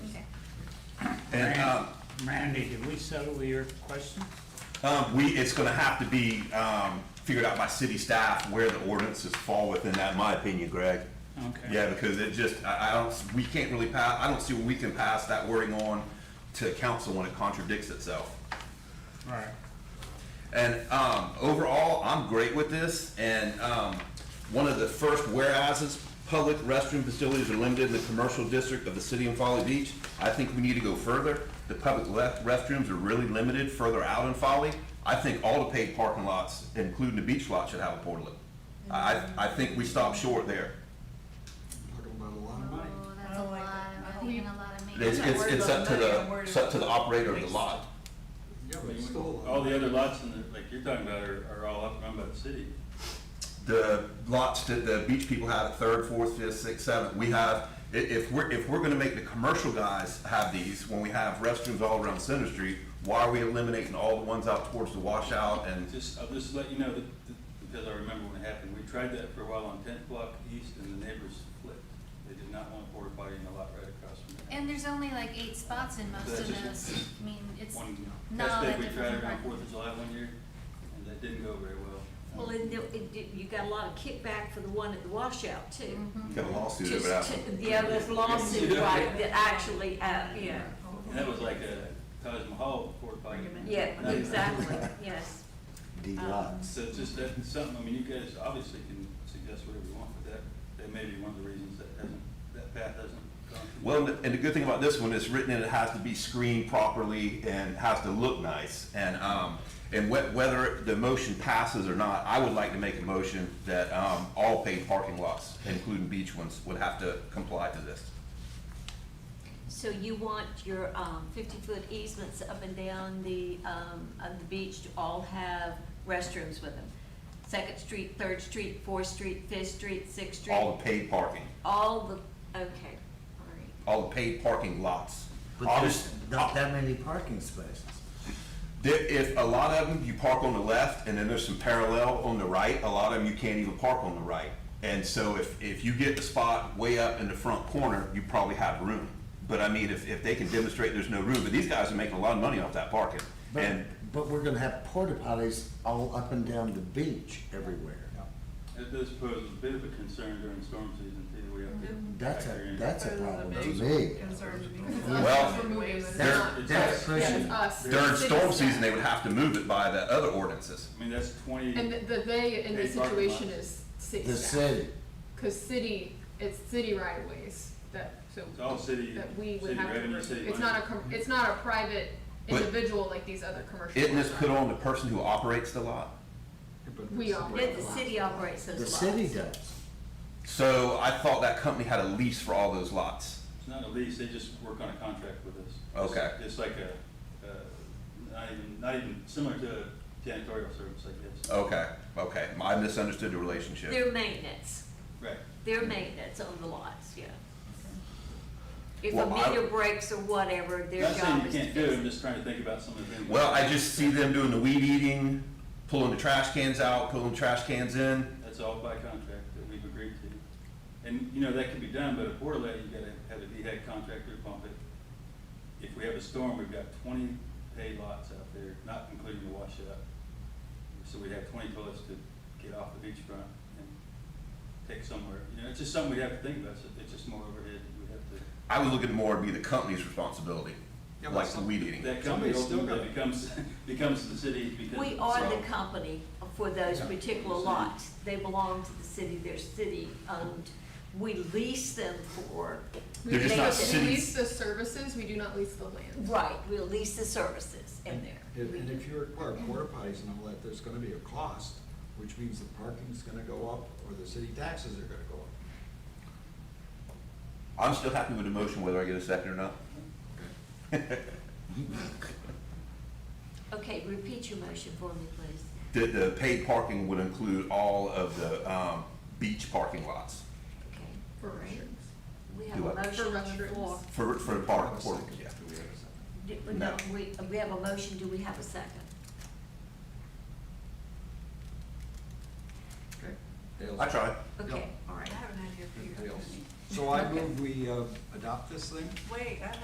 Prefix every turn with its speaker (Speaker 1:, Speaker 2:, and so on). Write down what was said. Speaker 1: And,
Speaker 2: uh,
Speaker 1: um,
Speaker 2: Randy, did we settle your question?
Speaker 1: Um, we, it's gonna have to be, um, figured out by city staff where the ordinances fall within that, in my opinion, Greg.
Speaker 2: Okay.
Speaker 1: Yeah, because it just, I, I don't, s- we can't really pass, I don't see where we can pass that wording on to council when it contradicts itself.
Speaker 2: All right.
Speaker 1: And um, overall, I'm great with this. And um, one of the first whereases, public restroom facilities are limited in the commercial district of the city of Folly Beach. I think we need to go further. The public left restrooms are really limited further out in Folly. I think all the paid parking lots, including the beach lot, should have a portlet. I, I think we stopped short there.
Speaker 3: Talking about a lot of
Speaker 4: Oh,
Speaker 3: money.
Speaker 4: that's a
Speaker 5: I don't like
Speaker 4: lot,
Speaker 5: that. I
Speaker 4: I'm
Speaker 5: don't
Speaker 4: taking
Speaker 5: even-
Speaker 4: a lot of me.
Speaker 1: It's, it's, it's up to the, it's up to the operator of the lot.
Speaker 3: Yeah, but it's still a lot.
Speaker 6: All the other lots in the, like you're talking about are, are all up run by the city.
Speaker 1: the lots that the beach people have at third, fourth, fifth, sixth, seventh, we have, i- if we're, if we're gonna make the commercial guys have these, when we have restrooms all around Center Street, why are we eliminating all the ones out towards the washout and,
Speaker 6: Just, I'll just let you know that, that- because I remember when it happened, we tried that for a while on tenth block east and the neighbors flipped. They did not want a porta potty in the lot right across from there.
Speaker 4: And there's only like eight spots in most
Speaker 6: That's
Speaker 4: of
Speaker 6: just-
Speaker 4: those, I mean, it's
Speaker 6: One,
Speaker 4: not
Speaker 6: that's
Speaker 4: all
Speaker 6: big,
Speaker 4: that
Speaker 6: we tried
Speaker 4: different.
Speaker 6: around
Speaker 4: from
Speaker 6: Fourth of July one year and that didn't go very well.
Speaker 5: Well, it, it, did- you got a lot of kickback for the one at the washout too.
Speaker 4: Mm-hmm.
Speaker 7: Mm-hmm.
Speaker 1: get a lawsuit
Speaker 5: Just
Speaker 1: over that?
Speaker 5: to- Yeah, this lawsuit,
Speaker 6: Yeah.
Speaker 5: right, that actually, uh, yeah,
Speaker 6: And that was like a Taj Mahal porta potty.
Speaker 5: yeah,
Speaker 6: Not even-
Speaker 5: exactly, yes.
Speaker 7: D
Speaker 5: Um,
Speaker 7: lots.
Speaker 6: So it's just that, it's something, I mean, you guys obviously can suggest whatever you want, but that, that may be one of the reasons that hasn't, that path hasn't gone. through.
Speaker 1: Well, and the good thing about this one, it's written and it has to be screened properly and has to look nice. And, um, and whe- whether the motion passes or not, I would like to make a motion that, um, all paid parking lots, including beach ones, would have to comply to this.
Speaker 5: So you want your, um, fifty-foot easements up and down the, um, of the beach to all have restrooms with them? Second Street, Third Street, Fourth Street, Fifth Street, Sixth Street?
Speaker 1: All the paid parking.
Speaker 5: All the, okay, all right.
Speaker 1: all the paid parking lots.
Speaker 7: But
Speaker 1: Obviously,
Speaker 7: there's not that many parking spaces.
Speaker 1: there, if a lot of them, you park on the left, and then there's some parallel on the right, a lot of them, you can't even park on the right. And so if, if you get the spot way up in the front corner, you probably have room. But I mean, if, if they can demonstrate there's no room, but these guys are making a lot of money off that parking.
Speaker 7: But,
Speaker 1: And,
Speaker 7: but we're gonna have porta potties all up and down the beach everywhere.
Speaker 6: It does pose a bit of a concern during storm season, too, we have to.
Speaker 7: That's
Speaker 6: factor
Speaker 7: a,
Speaker 6: in-
Speaker 7: that's a
Speaker 8: Those are the
Speaker 7: problem to
Speaker 8: big
Speaker 7: me.
Speaker 8: concerns Mm-hmm. because
Speaker 1: Well,
Speaker 8: us removing it.
Speaker 1: they're-
Speaker 8: Not-
Speaker 7: that's
Speaker 8: yeah, it's
Speaker 7: pushing.
Speaker 8: us.
Speaker 1: during
Speaker 8: City
Speaker 1: storm
Speaker 8: staff.
Speaker 1: season, they would have to move it by the other ordinances.
Speaker 6: I mean, that's twenty,
Speaker 8: And the- the they in this
Speaker 6: They parking
Speaker 8: situation
Speaker 6: lots.
Speaker 8: is city
Speaker 7: The
Speaker 8: staff,
Speaker 7: city,
Speaker 8: cause city, it's city right of ways that, so.
Speaker 6: it's all city,
Speaker 8: That we
Speaker 6: city
Speaker 8: would have to,
Speaker 6: revenue,
Speaker 8: remove.
Speaker 6: city
Speaker 8: it's
Speaker 6: money.
Speaker 8: not a, com- it's not a private
Speaker 1: But-
Speaker 8: individual like these other commercial.
Speaker 1: Isn't this
Speaker 8: ones.
Speaker 1: put on the person who operates the lot?
Speaker 3: But
Speaker 8: We
Speaker 3: it's-
Speaker 8: are.
Speaker 5: Yeah, the city operates those
Speaker 7: the
Speaker 5: lots.
Speaker 7: city does.
Speaker 1: So I thought that company had a lease for all those lots.
Speaker 6: It's not a lease, they just work on a contract with us.
Speaker 1: Okay.
Speaker 6: It's like a, uh, not even, not even, similar to janitorial service, I guess.
Speaker 1: Okay, okay, I misunderstood the relationship.
Speaker 5: Their maintenance,
Speaker 6: Right,
Speaker 5: their maintenance on the lots, yeah. If a
Speaker 1: Well, I-
Speaker 5: meter breaks or whatever, their
Speaker 6: not saying
Speaker 5: job
Speaker 6: you
Speaker 5: is to
Speaker 6: can't do it,
Speaker 5: fix
Speaker 6: I'm
Speaker 5: it.
Speaker 6: just trying to think about some of the things.
Speaker 1: Well, I just see them doing the weed eating, pulling the trash cans out, pulling trash cans in.
Speaker 6: That's all by contract that we've agreed to. And, you know, that can be done, but a portal, you gotta have a DHEC contractor pump it. If we have a storm, we've got twenty hay lots out there, not including the washout. So we have twenty toilets to get off the beachfront and take somewhere. You know, it's just something we have to think about, so it's just more overhead, we have
Speaker 1: I would look at more to be the company's responsibility,
Speaker 3: Yeah, but
Speaker 1: like the
Speaker 3: some-
Speaker 1: weed
Speaker 6: to,
Speaker 1: eating.
Speaker 6: that company
Speaker 3: Somebody's still
Speaker 6: ultimately
Speaker 3: gotta-
Speaker 6: becomes, becomes the city because.
Speaker 5: We
Speaker 6: it's
Speaker 5: are
Speaker 6: all-
Speaker 5: the company for those
Speaker 6: Yeah.
Speaker 5: particular lots. They belong to the city, they're city owned. We lease them for,
Speaker 8: We
Speaker 1: They're just not
Speaker 8: lease-
Speaker 1: city-
Speaker 8: We lease the services, we do not lease the land.
Speaker 5: right, we lease the services in there.
Speaker 3: And and if you require porta potties and all that, there's gonna be a cost, which means the parking's gonna go up or the city taxes are gonna go up.
Speaker 1: I'm still happy with the motion, whether I get a second or not.
Speaker 5: Okay, repeat your motion for me, please.
Speaker 1: The, the paid parking would include all of the, um, beach parking lots
Speaker 5: Okay,
Speaker 8: For restrooms.
Speaker 5: we have
Speaker 1: Do
Speaker 5: a
Speaker 1: I-
Speaker 5: motion on the
Speaker 8: restrooms.
Speaker 5: floor.
Speaker 1: for, for the
Speaker 3: Have
Speaker 1: park,
Speaker 3: a
Speaker 1: for,
Speaker 3: second.
Speaker 1: yeah.
Speaker 3: Do we have a second?
Speaker 5: Do-
Speaker 1: No.
Speaker 5: We, we have a motion, do we have a second?
Speaker 3: Okay. Dale's-
Speaker 1: I tried.
Speaker 5: Okay,
Speaker 3: Yep.
Speaker 5: all right.
Speaker 8: I don't have your
Speaker 3: Dale's. So I move we uh, adopt this thing?
Speaker 4: Wait, I